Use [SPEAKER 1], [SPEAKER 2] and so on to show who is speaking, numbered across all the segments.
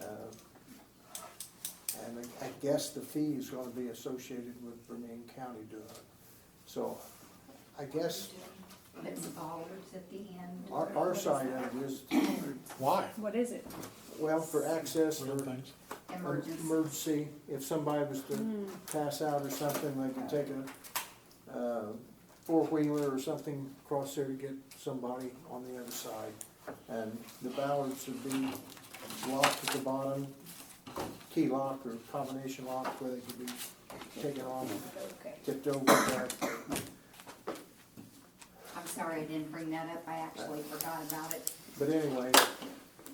[SPEAKER 1] Uh, I guess the fee is gonna be associated with Vermillion County doing it. So I guess
[SPEAKER 2] It's dollars at the end.
[SPEAKER 1] our, our side of it is,
[SPEAKER 3] Why?
[SPEAKER 4] What is it?
[SPEAKER 1] well, for access
[SPEAKER 3] Real
[SPEAKER 1] or
[SPEAKER 3] things.
[SPEAKER 2] Emergency. Hmm.
[SPEAKER 1] emergency, if somebody was to pass out or something, they can take a, uh, four-wheeler or something across there to get somebody on the other side. And the ballards would be locked at the bottom, key lock or combination lock where they could be taken off,
[SPEAKER 2] Okay.
[SPEAKER 1] tipped over back.
[SPEAKER 2] I'm sorry I didn't bring that up, I actually forgot about it.
[SPEAKER 1] But anyway,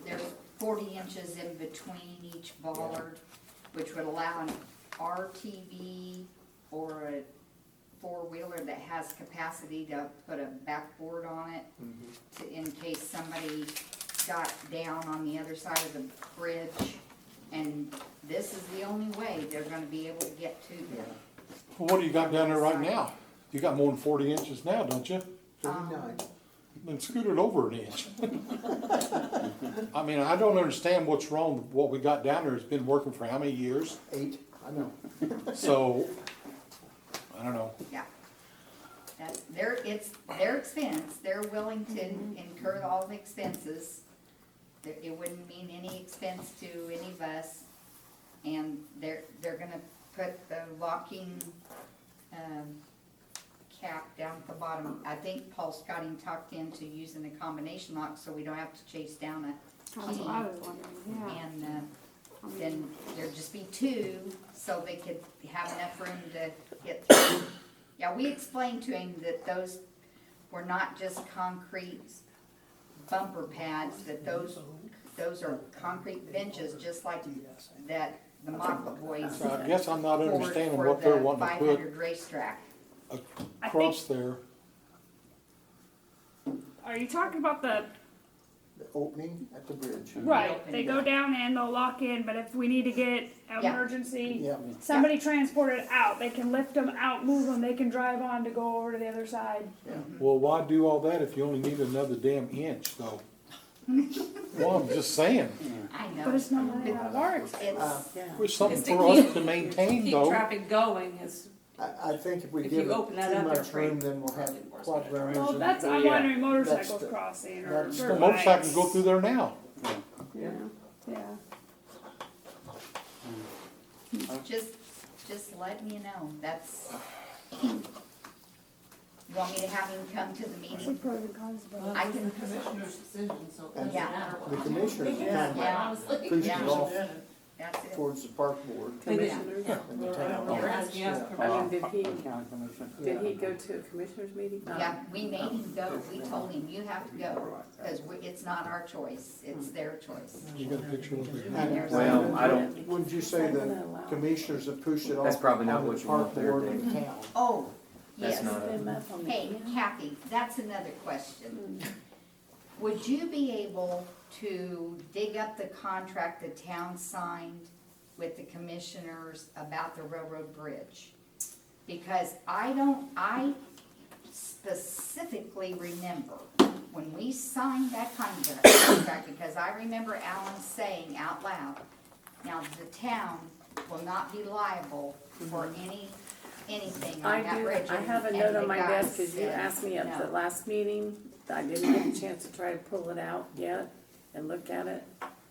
[SPEAKER 2] There's forty inches in between each bollard, which would allow an RTV or a four-wheeler that has capacity to put a backboard on it
[SPEAKER 1] Mm-hmm.
[SPEAKER 2] to, in case somebody got down on the other side of the bridge. And this is the only way they're gonna be able to get to
[SPEAKER 1] yeah,
[SPEAKER 2] them.
[SPEAKER 3] Well, what do you got down there right now? You got more than forty inches now, don't you?
[SPEAKER 1] thirty-nine.
[SPEAKER 3] Then scoot it over an inch. I mean, I don't understand what's wrong with what we got down there. It's been working for how many years?
[SPEAKER 1] Eight, I know.
[SPEAKER 3] So, I don't know.
[SPEAKER 2] Yeah. That's their, it's their expense, they're willing to
[SPEAKER 4] Mm-hmm.
[SPEAKER 2] incur all the expenses. There- It wouldn't mean any expense to any of us. And they're, they're gonna put the locking, um, cap down at the bottom. I think Paul's got him talked into using the combination lock, so we don't have to chase down a
[SPEAKER 4] Oh, That's
[SPEAKER 2] key.
[SPEAKER 4] what I was wondering, yeah.
[SPEAKER 2] And, uh,
[SPEAKER 4] I mean,
[SPEAKER 2] then there'd just be two, so they could have enough room to get through. Yeah, we explained to him that those were not just concrete bumper pads, that those, those are concrete benches, just like that the Maka boys.
[SPEAKER 3] So I guess I'm not
[SPEAKER 2] poured
[SPEAKER 3] understanding
[SPEAKER 2] for
[SPEAKER 3] what they're
[SPEAKER 2] the
[SPEAKER 3] wanting to put
[SPEAKER 2] 500 racetrack.
[SPEAKER 3] across there.
[SPEAKER 4] Are you talking about the,
[SPEAKER 1] The opening at the bridge.
[SPEAKER 4] right, they go down and they'll lock in, but if we need to get an
[SPEAKER 2] Yeah.
[SPEAKER 4] emergency,
[SPEAKER 1] Yeah,
[SPEAKER 4] somebody transported out, they can lift them out, move them, they can drive on to go over to the other side.
[SPEAKER 3] Well, why do all that if you only need another damn inch though? Well, I'm just saying,
[SPEAKER 2] I
[SPEAKER 4] But
[SPEAKER 2] know,
[SPEAKER 4] it's not money out of our expense.
[SPEAKER 2] it's,
[SPEAKER 3] there's something
[SPEAKER 5] It's to
[SPEAKER 3] for us
[SPEAKER 5] keep-
[SPEAKER 3] to maintain
[SPEAKER 5] Keep
[SPEAKER 3] though.
[SPEAKER 5] traffic going is,
[SPEAKER 1] I, I think if we
[SPEAKER 5] If
[SPEAKER 1] give it
[SPEAKER 5] you open that
[SPEAKER 1] too
[SPEAKER 5] up, they're
[SPEAKER 1] much
[SPEAKER 5] free.
[SPEAKER 1] room, then we'll have quad runners.
[SPEAKER 4] Well,
[SPEAKER 1] and-
[SPEAKER 4] that's, I'm
[SPEAKER 6] Yeah.
[SPEAKER 4] wondering motorcycles
[SPEAKER 1] the-
[SPEAKER 4] crossing or.
[SPEAKER 1] that's
[SPEAKER 4] dirt
[SPEAKER 3] The motorcycle
[SPEAKER 4] bikes.
[SPEAKER 3] go through there now.
[SPEAKER 4] Yeah, yeah.
[SPEAKER 2] just, just let me know, that's. You want me to have him come to the
[SPEAKER 4] What's
[SPEAKER 2] meeting?
[SPEAKER 4] the pros and cons about it?
[SPEAKER 2] I can,
[SPEAKER 7] commissioner's decision, so it doesn't
[SPEAKER 2] Yeah.
[SPEAKER 7] matter
[SPEAKER 1] The
[SPEAKER 7] what.
[SPEAKER 1] commissioners are kind
[SPEAKER 2] yeah,
[SPEAKER 1] of pushed
[SPEAKER 2] Yeah.
[SPEAKER 1] it off
[SPEAKER 2] that's it.
[SPEAKER 1] towards the park board
[SPEAKER 5] Commissioner.
[SPEAKER 1] and the
[SPEAKER 7] We're
[SPEAKER 1] town.
[SPEAKER 7] asking us
[SPEAKER 1] Yeah.
[SPEAKER 7] for
[SPEAKER 6] I
[SPEAKER 7] permission.
[SPEAKER 6] mean, did he,
[SPEAKER 8] County Commission.
[SPEAKER 6] did he go to a commissioners meeting? No.
[SPEAKER 2] Yeah, we made him go, we told him, you have to go, because it's not our choice, it's their choice.
[SPEAKER 3] You got a picture of it?
[SPEAKER 1] And-
[SPEAKER 8] Well, I don't-
[SPEAKER 1] Wouldn't you say the commissioners have pushed it off?
[SPEAKER 8] That's probably not
[SPEAKER 1] onto the
[SPEAKER 8] what you want
[SPEAKER 1] park
[SPEAKER 8] there,
[SPEAKER 1] board and
[SPEAKER 8] Dave.
[SPEAKER 1] the town?
[SPEAKER 2] Oh,
[SPEAKER 8] That's
[SPEAKER 2] yes.
[SPEAKER 8] not it.
[SPEAKER 2] Hey, Kathy, that's another question. Would you be able to dig up the contract the town signed with the commissioners about the railroad bridge? Because I don't, I specifically remember when we signed that contract, contract, because I remember Alan saying out loud, now the town will not be liable for any, anything
[SPEAKER 6] I
[SPEAKER 2] on that
[SPEAKER 6] do,
[SPEAKER 2] bridge.
[SPEAKER 6] I have a
[SPEAKER 2] And
[SPEAKER 6] note on
[SPEAKER 2] the
[SPEAKER 6] my
[SPEAKER 2] guy
[SPEAKER 6] desk, cause you
[SPEAKER 2] said,
[SPEAKER 6] asked me at the
[SPEAKER 2] "No."
[SPEAKER 6] last meeting, I didn't get a chance to try to pull it out yet and look at it.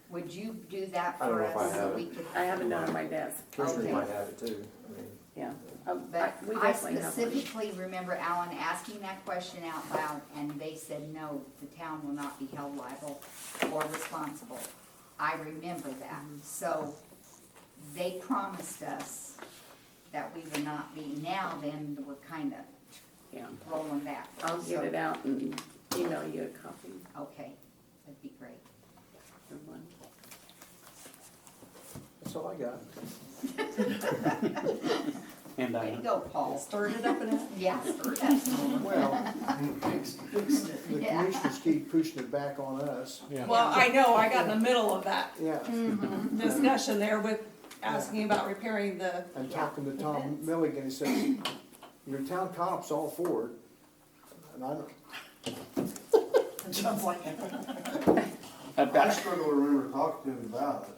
[SPEAKER 2] Would you do that
[SPEAKER 8] I don't
[SPEAKER 2] for
[SPEAKER 8] know if I
[SPEAKER 2] us so
[SPEAKER 8] have
[SPEAKER 2] we
[SPEAKER 8] it.
[SPEAKER 2] could?
[SPEAKER 6] I have a note on my desk,
[SPEAKER 8] Commissioners
[SPEAKER 2] Okay.
[SPEAKER 8] might have it too, I mean.
[SPEAKER 6] yeah. Oh, I-
[SPEAKER 2] But
[SPEAKER 6] We
[SPEAKER 2] I
[SPEAKER 6] definitely have one.
[SPEAKER 2] specifically remember Alan asking that question out loud and they said, no, the town will not be held liable or responsible. I remember that.
[SPEAKER 6] Mm-hmm.
[SPEAKER 2] So they promised us that we would not be. Now then, we're kind of
[SPEAKER 6] Yeah,
[SPEAKER 2] rolling back.
[SPEAKER 6] I'll get it out and email you a copy
[SPEAKER 2] So, Okay, that'd be great.
[SPEAKER 6] of one.
[SPEAKER 1] That's all I got.
[SPEAKER 8] And
[SPEAKER 2] Way to go, Paul.
[SPEAKER 5] stirred it up and
[SPEAKER 2] Yeah, stir it up.
[SPEAKER 1] Well, the
[SPEAKER 2] Yeah.
[SPEAKER 1] commissioners keep pushing it back on us.
[SPEAKER 3] Yeah.
[SPEAKER 5] Well, I know, I got in the middle of that
[SPEAKER 1] Yeah,
[SPEAKER 5] discussion there with asking about repairing the,
[SPEAKER 1] and talking to Tom Milligan, he says, your town cop's all for it. And I don't,
[SPEAKER 8] I've
[SPEAKER 9] I
[SPEAKER 8] got,
[SPEAKER 9] struggle to remember talking to him about it.